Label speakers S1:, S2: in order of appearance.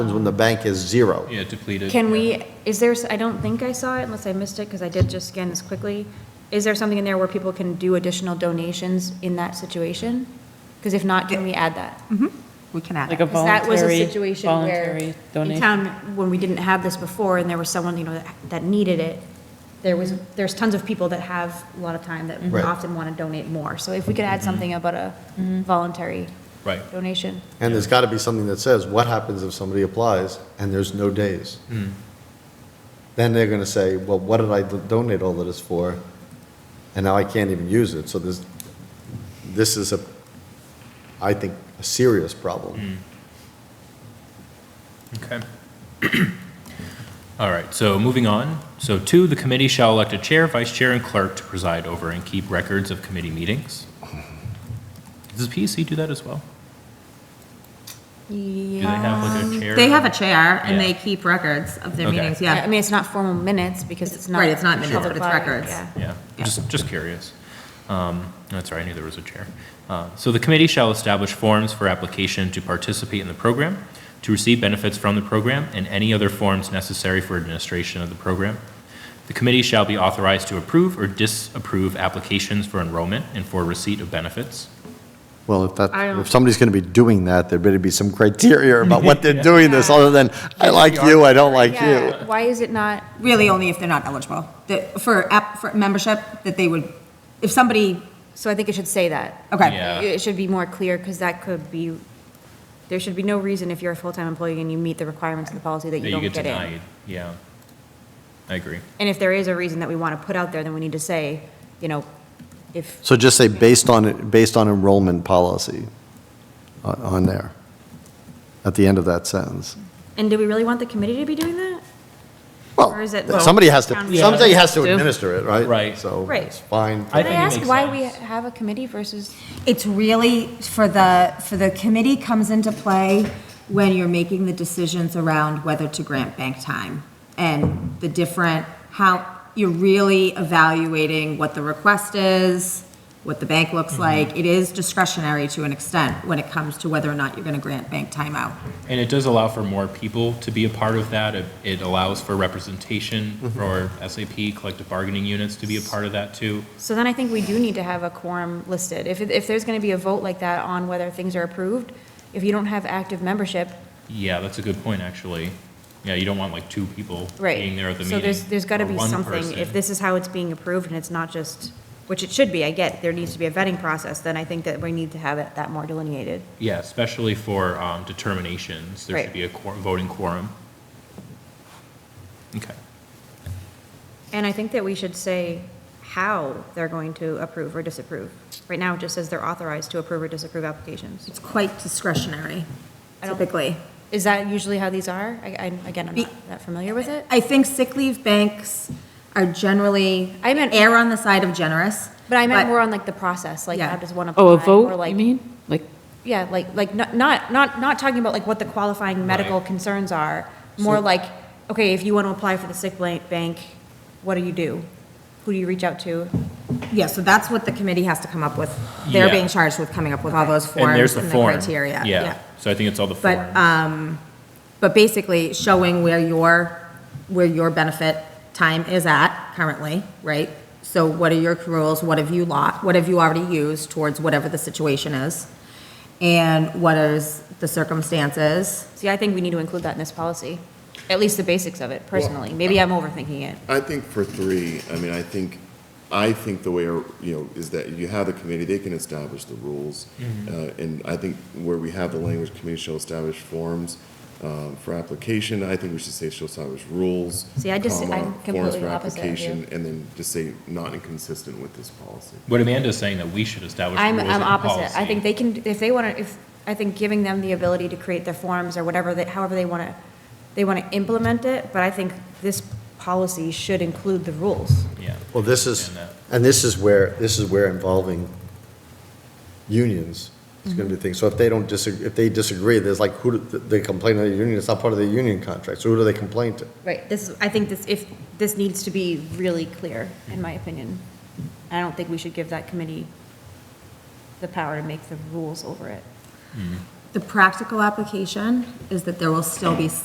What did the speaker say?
S1: happens when the bank is zero.
S2: Yeah, depleted.
S3: Can we, is there, I don't think I saw it unless I missed it, because I did just scan this quickly. Is there something in there where people can do additional donations in that situation? Because if not, can we add that?
S4: Mm-hmm. We can add
S5: Like a
S4: that.
S3: Because that was a
S5: voluntary-
S3: situation where
S5: voluntary
S3: in
S5: donation.
S3: town, when we didn't have this before and there was someone, you know, that- that needed it, there was, there's tons of people that have a lot of time that
S1: Right.
S3: often want to donate more. So if we could
S5: Mm-hmm.
S3: add something about a voluntary
S2: Right.
S3: donation.
S1: And there's got to be something that says, what happens if somebody applies and there's no days? Then they're going to say, well, what did I do- donate all of this for? And now I can't even use it. So this, this is a, I think, a serious problem.
S2: Okay. All right, so moving on. So two, the committee shall elect a chair, vice chair, and clerk to preside over and keep records of committee meetings. Does PEC do that as well? Do they have like a chair?
S4: They have a chair and
S2: Yeah.
S4: they keep records of their
S2: Okay.
S4: meetings,
S3: Yeah, I
S4: yeah.
S3: mean, it's not formal minutes because it's not.
S4: Right, it's not minutes,
S3: public
S4: but it's
S3: body,
S4: records.
S3: yeah.
S2: Yeah, just, just curious. Um, That's right, I knew there was a chair. Uh, So the committee shall establish forms for application to participate in the program, to receive benefits from the program, and any other forms necessary for administration of the program. The committee shall be authorized to approve or disapprove applications for enrollment and for receipt of benefits.
S1: Well, if that,
S3: I don't-
S1: if somebody's going to be doing that, there better be some criteria about what they're doing this, other than, I like you, I don't like you.
S3: Yeah, why is it not,
S4: Really only if they're not eligible, that, for app, for membership, that they would, if somebody,
S3: so I think it should say that.
S4: okay.
S2: Yeah.
S3: It should be more clear, because that could be, there should be no reason if you're a full-time employee and you meet the requirements of the policy that
S2: that
S3: you
S2: get
S3: don't get in.
S2: denied. Yeah. I agree.
S3: And if there is a reason that we want to put out there, then we need to say, you know, if,
S1: So just say, based on, based on enrollment policy on- on there, at the end of that sentence.
S3: and do we really want the committee to be doing that?
S1: Well,
S3: Or is it-
S1: somebody has
S3: Town
S1: to,
S3: meeting.
S1: somebody has to
S5: Yeah.
S1: administer it, right?
S2: Right.
S1: So
S3: Right.
S1: it's fine.
S2: I
S3: Can I
S2: think it
S3: ask
S2: makes
S3: why we
S2: sense.
S3: have a committee versus,
S4: It's really for the, for the committee comes into play when you're making the decisions around whether to grant bank time and the different, how, you're really evaluating what the request is, what the bank looks like. It is discretionary to an extent when it comes to whether or not you're going to grant bank time out.
S2: And it does allow for more people to be a part of that. It- It allows for representation for SAP collective bargaining units to be a part of that too.
S3: so then I think we do need to have a quorum listed. If, it- if there's going to be a vote like that on whether things are approved, if you don't have active membership,
S2: Yeah, that's a good point, actually. Yeah, you don't want like two people
S3: Right.
S2: being there at the meeting.
S3: So there's, there's got to
S2: or
S3: be
S2: one
S3: something, if
S2: person.
S3: this is how it's being approved and it's not just, which it should be, I get, there needs to be a vetting process, then I think that we need to have it that more delineated.
S2: Yeah, especially for um, determinations, there should
S3: Right.
S2: be a quor- voting quorum. Okay.
S3: And I think that we should say how they're going to approve or disapprove. Right now, it just says they're authorized to approve or disapprove applications.
S4: It's quite discretionary,
S3: I don't-
S4: typically.
S3: Is that usually how these are? I, I, again, I'm
S4: Be-
S3: not that familiar with it.
S4: I think sick leave banks are generally,
S3: I meant-
S4: err on the side of generous.
S3: But I meant more on like the process, like
S4: Yeah.
S3: how does one apply?
S5: Oh, a
S3: or,
S5: vote,
S3: like-
S5: you mean? Like,
S3: Yeah, like, like, not, not, not not talking about like what the qualifying medical
S2: Right.
S3: concerns are, more like, okay, if you want to apply for the sick blank bank, what do you do? Who do you reach out to?
S4: Yeah, so that's what the committee has to come up with. They're
S2: Yeah.
S4: being charged with coming up with all those
S2: And there's
S4: forms
S2: the
S4: and the
S2: form.
S4: criteria.
S2: Yeah, so I think it's all the
S4: But,
S3: uh,
S2: form.
S4: um, but basically showing where your, where your benefit time is at currently, right? So what are your accruals, what have you lot, what have you already used towards whatever the situation is? And what is the circumstances?
S3: See, I think we need to include that in this policy, at least the basics of it personally. Maybe
S2: uh,
S3: I'm overthinking it.
S6: I think for three, I mean, I think, I think the way, you know, is that you have the committee, they can establish the rules. Uh, And I think where we have the language, committee shall establish forms um, for application, I think we should say shall establish rules.
S3: See, I just-
S6: comma,
S3: I'm
S6: forms
S3: completely
S6: for
S3: opposite of you.
S6: application, And then just say not inconsistent with this policy.
S2: What Amanda's saying that we should establish rules
S3: I'm,
S2: and
S3: I'm opposite. I
S2: policy.
S3: think they can, if they want to, if, I think giving them the ability to create their forms or whatever, they- however they want to, they want to implement it, but I think this policy should include the rules.
S2: Yeah.
S1: Well, this is,
S2: And uh, that-
S1: and this is where, this is where involving unions is going to be the thing. So if they don't disagree, if they disagree, there's like, who, do- they complain to the union, it's not part of the union contract, so who do they complain to?
S3: Right, this, is- I think this, if, this needs to be really clear, in my opinion. I don't think we should give that committee the power to make the rules over it.
S4: The practical application is that there will still be